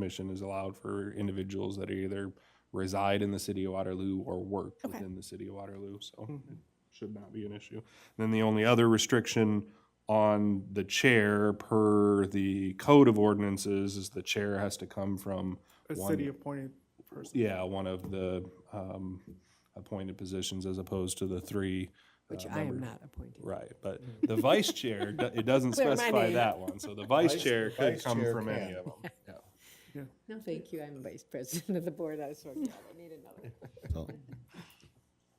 commission is allowed for individuals that either reside in the city of Waterloo or work Okay. within the city of Waterloo, so Hmm. it Mm-hmm. should not be an issue. Then the only other restriction on the chair per the code of ordinances is the chair has to come from, A One- city appointed person. yeah, one of the, um, appointed positions as opposed to the three. uh, Which I am members. not Mm. appointed. Right, but the vice chair, do- it doesn't Clear my specify name. that one, so the vice Vice- chair could vice come chair from any can. of them. Yeah. No, thank you. I'm vice president of the board. I was like, yeah, I need another. So,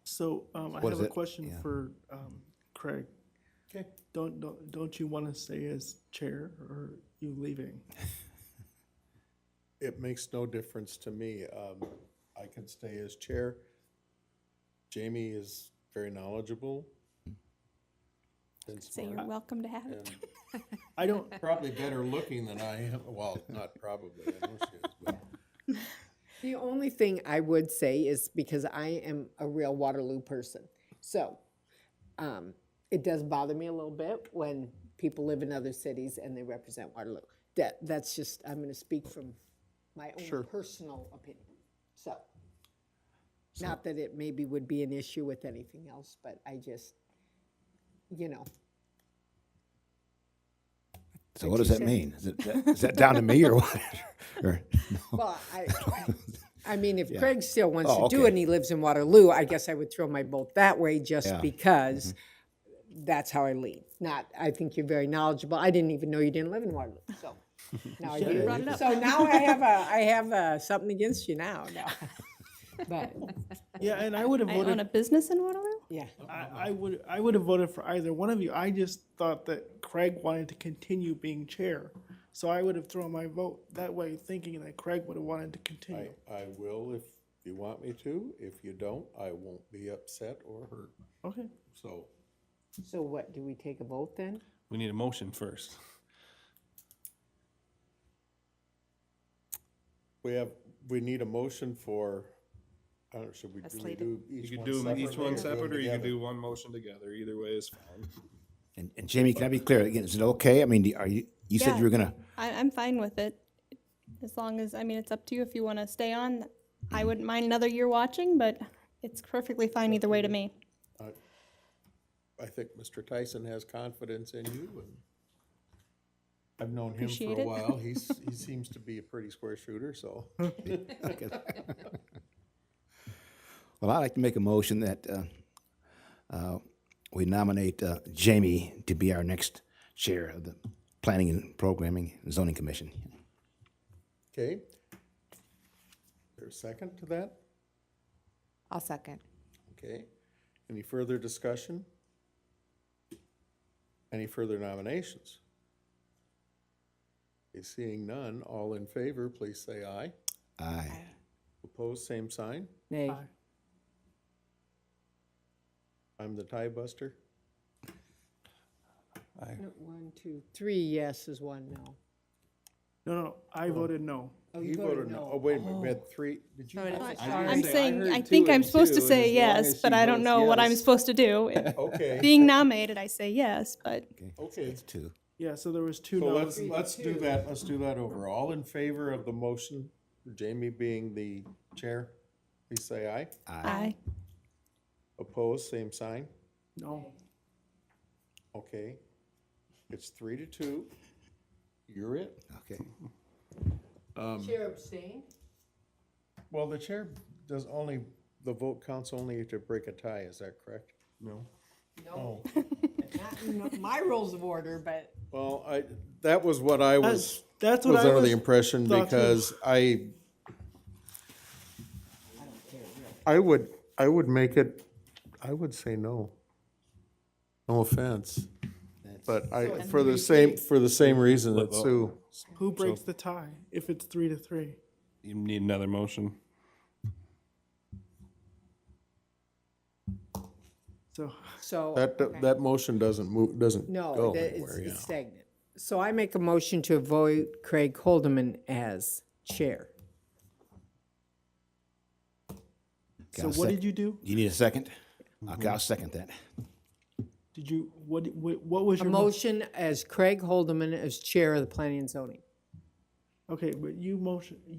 So, um, I What have is a it? question Yeah. for, um, Craig. Okay. Don't, don't, don't you want to stay as chair or you leaving? It makes no difference to me. Um, I can stay as chair. Jamie is very knowledgeable. and So you're smart, welcome to have it. and I don't, Probably better looking than I am. Well, not probably, I know she is, but The only thing I would say is because I am a real Waterloo person. So um, it does bother me a little bit when people live in other cities and they represent Waterloo. That, that's just, I'm going to speak from my own personal opinion. So, not that it maybe would be an issue with anything else, but I just, you know, So what does that mean? Is, it, that, is that down to me or what? or, Well, I, I mean, if Craig still wants Oh, to do it okay. and he lives in Waterloo, I guess I would throw my vote that way just Yeah. Mm-hmm. because that's how I lean. Not, I think you're very knowledgeable. I didn't even know you didn't live in Waterloo, so. Now I brought it do. up. So now I have a, I have a, something against you now, no. But, yeah, and I would have I own a voted, business in Waterloo? yeah. I, I would, I would have voted for either one of you. I just thought that Craig wanted to continue being chair. So I would have thrown my vote that way, thinking that Craig would have wanted to I, continue. I will if you want me to. If you don't, I won't be upset or hurt. Okay. So So what, do we take a vote then? We need a motion first. we have, we need a motion for, I don't, know, should we do we do You each could one do them separately? each one do them separate, or you could together? do one motion together, either way is fine. and, and Jamie, can I be clear again? Is it okay? I mean, do- are you? You said Yeah. you were gonna. I, I'm fine with it. As long as, I mean, it's up to you if you want to stay on. I wouldn't mind another year watching, but it's perfectly fine either way to me. I think Mr. Tyson has confidence in you and I've known him Appreciate for a it. while. He's, he seems to be a pretty square shooter, so. Well, I'd like to make a motion that uh, uh, we nominate uh, Jamie to be our next chair of the Planning and Programming and Zoning Commission. Okay. There's a second to that? I'll second. Okay. Any further discussion? Any further nominations? Okay, Seeing none, all in favor, please say aye. Aye. Opposed, same sign. Nay. I'm the tie buster. One, two, three yeses, one no. No, no, I voted no. Oh, He voted no. Oh, wait a minute, we had three, Oh, did you? I'm saying, heard I two think I'm and supposed to two, and say as long yes, as but she I don't votes know what I'm yes- supposed to do. If- Okay, Being nominated, I say yes, but okay. Two. Yeah, so there was two So no's. let's, let's do that, let's do that over. All in favor of the motion, Jamie being the chair, please say aye. I, Opposed, same sign. No. Okay. It's three to two. You're it. Okay. Um, Chair abstain? Well, the chair does only, the vote counts only to break a tie, is that correct? No. No. Not in my rules of order, but. Well, I, that was what I was, That's, that's what was I was. under the impression thought too. because I, I would, I would make it, I would say no. No offense. But I, for the same, for the same reason that Sue, Who breaks the tie if it's three to three? You need another motion. So So. that, that motion doesn't move, doesn't No, go that- it's anywhere, yeah. it's stagnant. So I make a motion to avoid Craig Holdeman as chair. So what did you do? You need a second? Okay, I'll second that. Did you what what, what was A your mo- motion as Craig Holdeman as chair of the planning and zoning. Okay, but you motion,